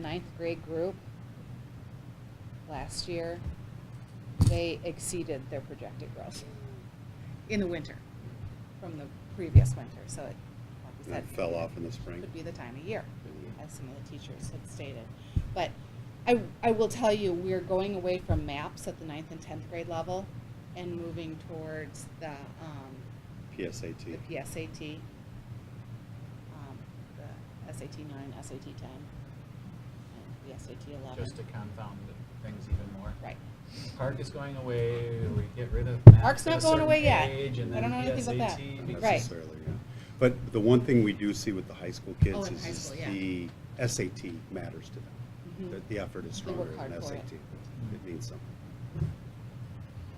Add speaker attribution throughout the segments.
Speaker 1: ninth grade group last year, they exceeded their projected growth in the winter from the previous winter, so it, like we
Speaker 2: And
Speaker 1: said.
Speaker 2: it fell off Mm-hmm. in the spring.
Speaker 1: Could be the time of year, as some of the teachers had stated. But I, I will tell you, we're going away from maps at the ninth and tenth grade level and moving towards the, um, the
Speaker 2: PSAT.
Speaker 1: PSAT, um, the SAT nine, SAT ten, and the SAT eleven.
Speaker 3: just to confound the things even more.
Speaker 1: Right.
Speaker 3: Park is going away, we get rid of math
Speaker 1: Park's
Speaker 3: at a
Speaker 1: not going
Speaker 3: certain
Speaker 1: away yet.
Speaker 3: age, and
Speaker 1: I don't
Speaker 3: then
Speaker 1: know anything about
Speaker 3: PSAT
Speaker 1: that.
Speaker 3: becomes-
Speaker 1: Right.
Speaker 2: Necessarily, yeah. But the one thing we do see with the high school
Speaker 1: Oh,
Speaker 2: kids
Speaker 1: in
Speaker 2: is
Speaker 1: high
Speaker 2: is
Speaker 1: school, yeah.
Speaker 2: the SAT matters to them.
Speaker 1: Mhm.
Speaker 2: That the effort is
Speaker 1: They work
Speaker 2: stronger
Speaker 1: hard
Speaker 2: than
Speaker 1: for it.
Speaker 2: SAT. It means something.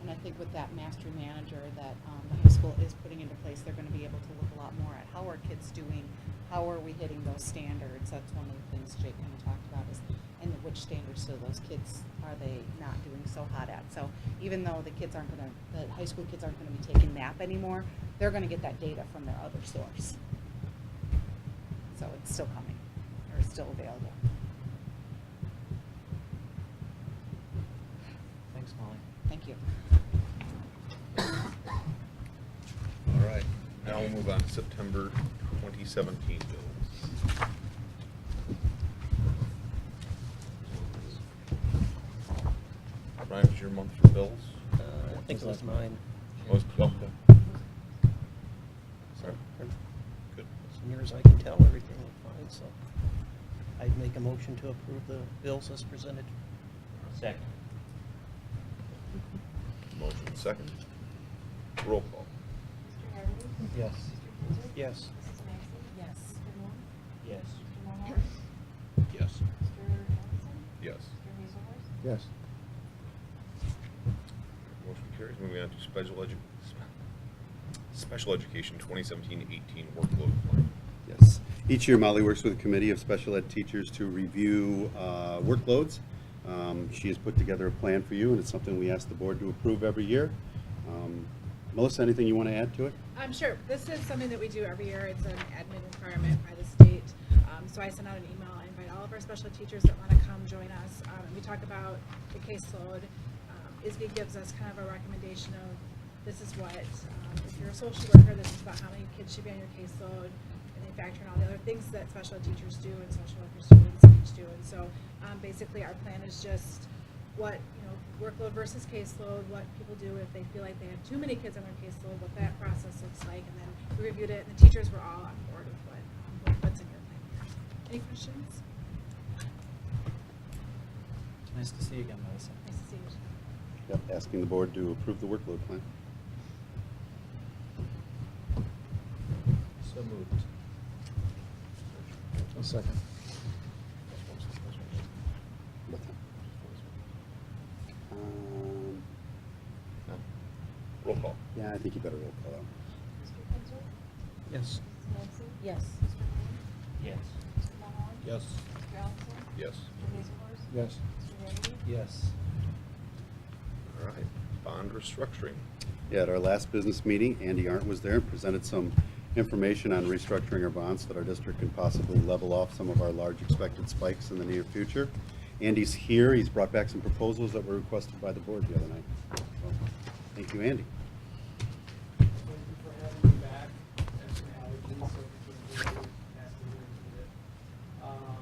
Speaker 1: And I think with that master manager that um, the high school is putting into place, they're gonna be able to look a lot more at how are kids doing, how are we hitting those standards? That's one of the things Jake kind of talked about is, and which standards do those kids, are they not doing so hot at? So even though the kids aren't gonna, the high school kids aren't gonna be taking MAP anymore, they're gonna get that data from their other source. So it's still coming, or still available.
Speaker 3: Thanks, Molly.
Speaker 1: Thank you.
Speaker 4: All right, now we'll move on to September 2017 bills. Ryan, was your month for bills?
Speaker 5: Uh, I think it was mine.
Speaker 4: Was, well,
Speaker 5: So, for-
Speaker 4: good.
Speaker 5: as near as I can tell, everything looked fine, so I'd make a motion to approve the bills as presented.
Speaker 6: Second.
Speaker 4: Motion second. Roll call.
Speaker 7: Mr. Harvey?
Speaker 3: Yes.
Speaker 7: Mr. Kinzer?
Speaker 5: Yes.
Speaker 7: Mrs. Maxey?
Speaker 1: Yes.
Speaker 7: Mr. Moon?
Speaker 6: Yes.
Speaker 7: Mr. Mulhauer?
Speaker 4: Yes.
Speaker 7: Mr. Johnson?
Speaker 4: Yes.
Speaker 7: Mr. Hazelworth?
Speaker 8: Yes.
Speaker 4: Motion carries. Moving on to special edu, special education 2017-18 workload plan.
Speaker 2: Yes. Each year, Molly works with a committee of special ed teachers to review uh, workloads. Um, She has put together a plan for you, and it's something we ask the board to approve every year. Um, Melissa, anything you want to add to it?
Speaker 9: Um, sure. This is something that we do every year. It's an admin requirement by the state. Um, so I send out an email. I invite all of our special ed teachers that want to come join us. Um, and we talk about the caseload. Um, ISBE gives us kind of a recommendation of this is what, um, if you're a social worker, this is about how many kids should be on your caseload. And they factor in all the other things that special ed teachers do and social worker students and each do. And so um, basically, our plan is just what, you know, workload versus caseload, what people do if they feel like they have too many kids on their caseload, what that process looks like, and then we reviewed it, and the teachers were all on board with what, um, what- what's in your plan. Any questions?
Speaker 3: Nice to see you again, Melissa.
Speaker 9: Nice to see you.
Speaker 2: Yep, asking the board to approve the workload plan.
Speaker 6: So moved.
Speaker 8: A second.
Speaker 2: What time? Um,
Speaker 4: Roll call.
Speaker 2: Yeah, I think you better roll call out.
Speaker 7: Mr. Kinzer?
Speaker 5: Yes.
Speaker 7: Mrs. Maxey?
Speaker 1: Yes.
Speaker 7: Mr. Moon?
Speaker 6: Yes.
Speaker 7: Mr. Mulhauer?
Speaker 6: Yes.
Speaker 7: Mr. Johnson?
Speaker 4: Yes.
Speaker 7: Mr. Hazelworth?
Speaker 8: Yes.
Speaker 7: Mr. Harvey?
Speaker 6: Yes.
Speaker 4: All right, bond restructuring.
Speaker 2: Yeah, at our last business meeting, Andy Arndt was there, and presented some information on restructuring our bonds so that our district can possibly level off some of our large expected spikes in the near future. Andy's here, he's brought back some proposals that were requested by the board the other night. So, Thank you, Andy.
Speaker 10: Thank you for having me back. That's an allergy, so we can really pass the word to it. Um,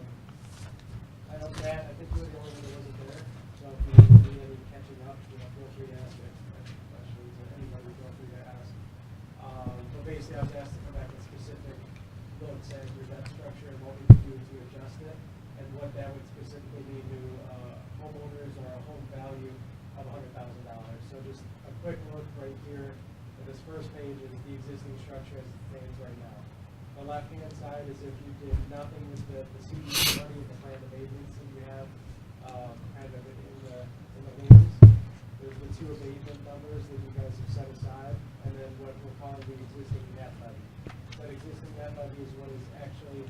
Speaker 10: I know Brad, I think you were the only one that wasn't there, so if you need any catching up, you know, feel free to ask any questions, or anybody feel free to ask. Um, but basically, I was asked to come back with specific looks at your debt structure and what we could do to adjust it, and what that would specifically mean to, uh, homeowners or a home value of a hundred thousand dollars. So just a quick look right here, at this first page is the existing structure as it stands right now. The left-hand side is if you did nothing with the, the CD money and the plan of abatements that you have, um, kind of in the, in the wings. There's the two abatement numbers that you guys have set aside, and then what we're calling the existing net levy. That existing net levy is what is actually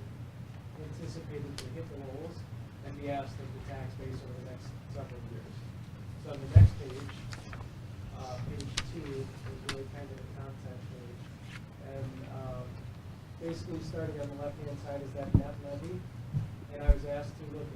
Speaker 10: anticipated to hit the rolls and be asked of the tax base over the next several years. So on the next page, uh, page two is really kind of the concept page. And, um, basically starting on the left-hand side is that net levy. And I was asked to look